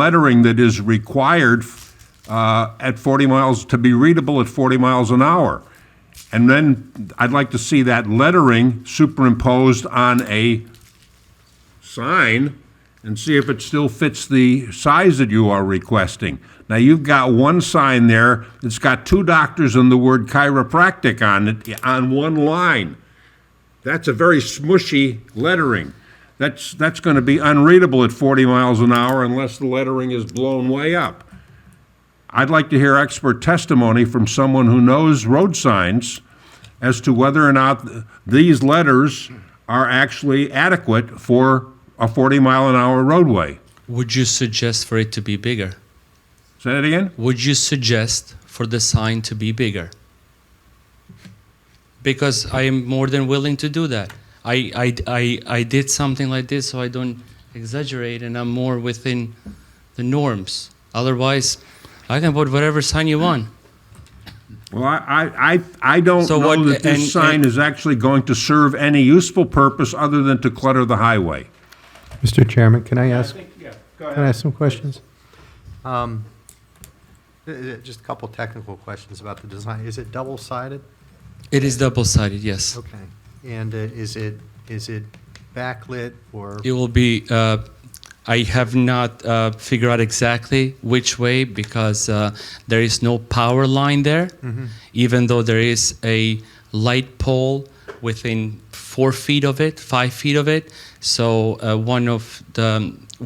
lettering that is required uh, at 40 miles, to be readable at 40 miles an hour. And then I'd like to see that lettering superimposed on a sign and see if it still fits the size that you are requesting. Now, you've got one sign there that's got two doctors and the word chiropractic on it, on one line. That's a very smushy lettering. That's, that's going to be unreadable at 40 miles an hour unless the lettering is blown way up. I'd like to hear expert testimony from someone who knows road signs as to whether or not th- these letters are actually adequate for a 40 mile an hour roadway. Would you suggest for it to be bigger? Say that again? Would you suggest for the sign to be bigger? Because I am more than willing to do that. I, I, I, I did something like this so I don't exaggerate and I'm more within the norms. Otherwise, I can put whatever sign you want. Well, I, I, I- I don't So know what- that and- this sign and- is actually going to serve any useful purpose other than to clutter the highway. Mr. Chairman, can I ask, Yeah, go can I ask some questions? Uh, uh, Um, Just a couple technical questions about the design. Is it double-sided? It is double sided, yes. Okay. And uh, is it, is it backlit or, It will be. Uh, I have not uh, figured out exactly which way because uh, there is no power line there, even though there is a light pole within four feet of it, five feet of it. So uh, one of the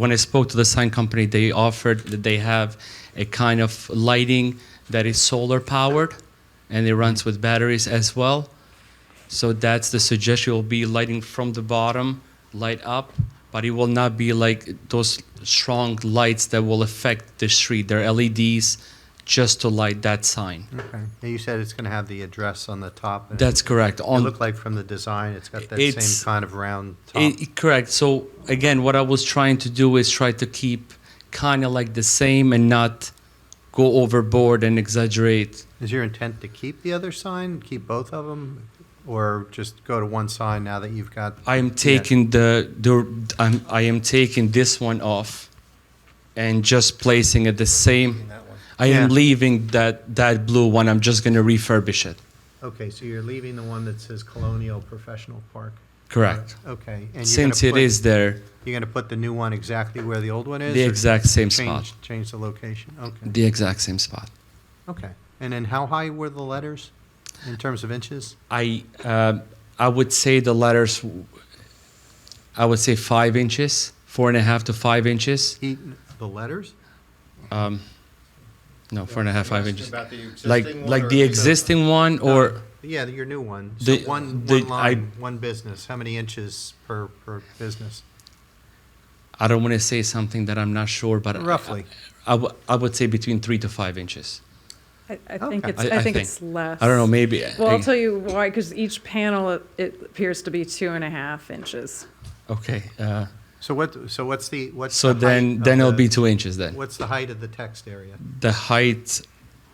when I spoke to the sign company, they offered that they have a kind of lighting that is solar powered, and it runs with batteries as well. So that's the suggestion. Will be lighting from the bottom, light up, but it will not be like those strong lights that will affect the street. They're LEDs just to light that sign. okay. Now, You said it's going to have the address on the top. and That's correct. It On looked like from the design, it's got that It's- same kind of round top. it- correct. So again, what I was trying to do is try to keep kind of like the same and not go overboard and exaggerate. Is your intent to keep the other sign, keep both of them? Or just go to one sign now that you've got? I am taking the, the I'm, I am taking this one off and just placing it the same. I am Yeah. leaving that, that blue one. I'm just going to refurbish it. Okay, so you're leaving the one that says Colonial Professional Park? Correct. Okay. and you're gonna Since it put- is there, You're going to put the new one exactly where the old one is? the or exact same spot. Change, change the location, okay. The exact same spot. Okay, and then how high were the letters in terms of inches? I, uh, I would say the letters, I would say five inches, four and a half to five inches. He, the letters? Um, no, four and a half, five inches. About the existing Like, one like or- the existing one or. Yeah, your new one. So The- one, the- one line, one business, how many inches per, per business? I don't want to say something that I'm not sure, but I- Roughly. I, I, w- I would say between three to five inches. I, I think Okay. it's, I think it's less. I don't know, maybe. eh, Well, I'll tell you why, because each panel, it- it appears to be two and a half inches. Okay. Uh, So what, so what's the, what's? so the height then, of then it'll the- be two inches then. What's the height of the text area? The height,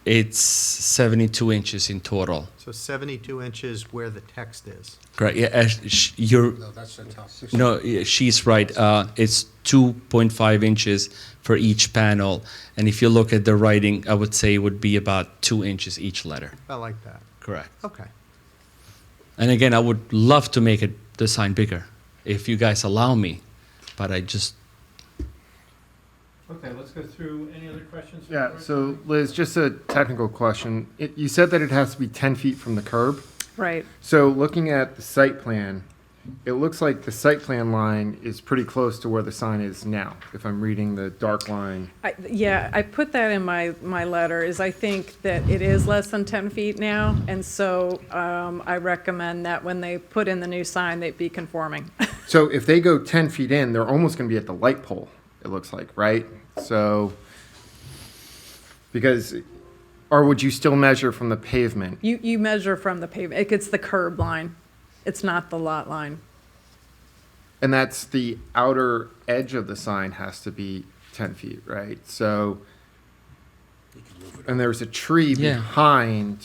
it's 72 inches in total. So seventy-two inches where the text is. Correct. Yeah, uh, sh- you're, No, that's the top. no, yeah, she's right. Uh, it's 2.5 inches for each panel. And if you look at the writing, I would say it would be about two inches each letter. About like that, Correct. okay. And again, I would love to make it the sign bigger if you guys allow me, but I just Okay, let's go through, any other questions? Yeah, so Liz, just a technical question. It, you said that it has to be ten feet from the curb. Right. So looking at the site plan, it looks like the site plan line is pretty close to where the sign is now, if I'm reading the dark line. I, yeah, I put that in my, my letter, is I think that it is less than ten feet now, and so, um, I recommend that when they put in the new sign, they be conforming. So if they go ten feet in, they're almost gonna be at the light pole, it looks like, right? So, because, or would you still measure from the pavement? You, you measure from the pavement, it's the curb line, it's not the lot line. And that's the outer edge of the sign has to be ten feet, right? So, and there's a tree Yeah. behind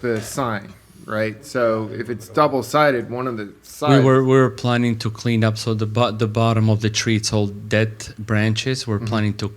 the sign, right? So if it's double sided, one of the we sides. were we were planning to clean up. So the bo- the bottom of the tree, it's all dead branches. We're planning to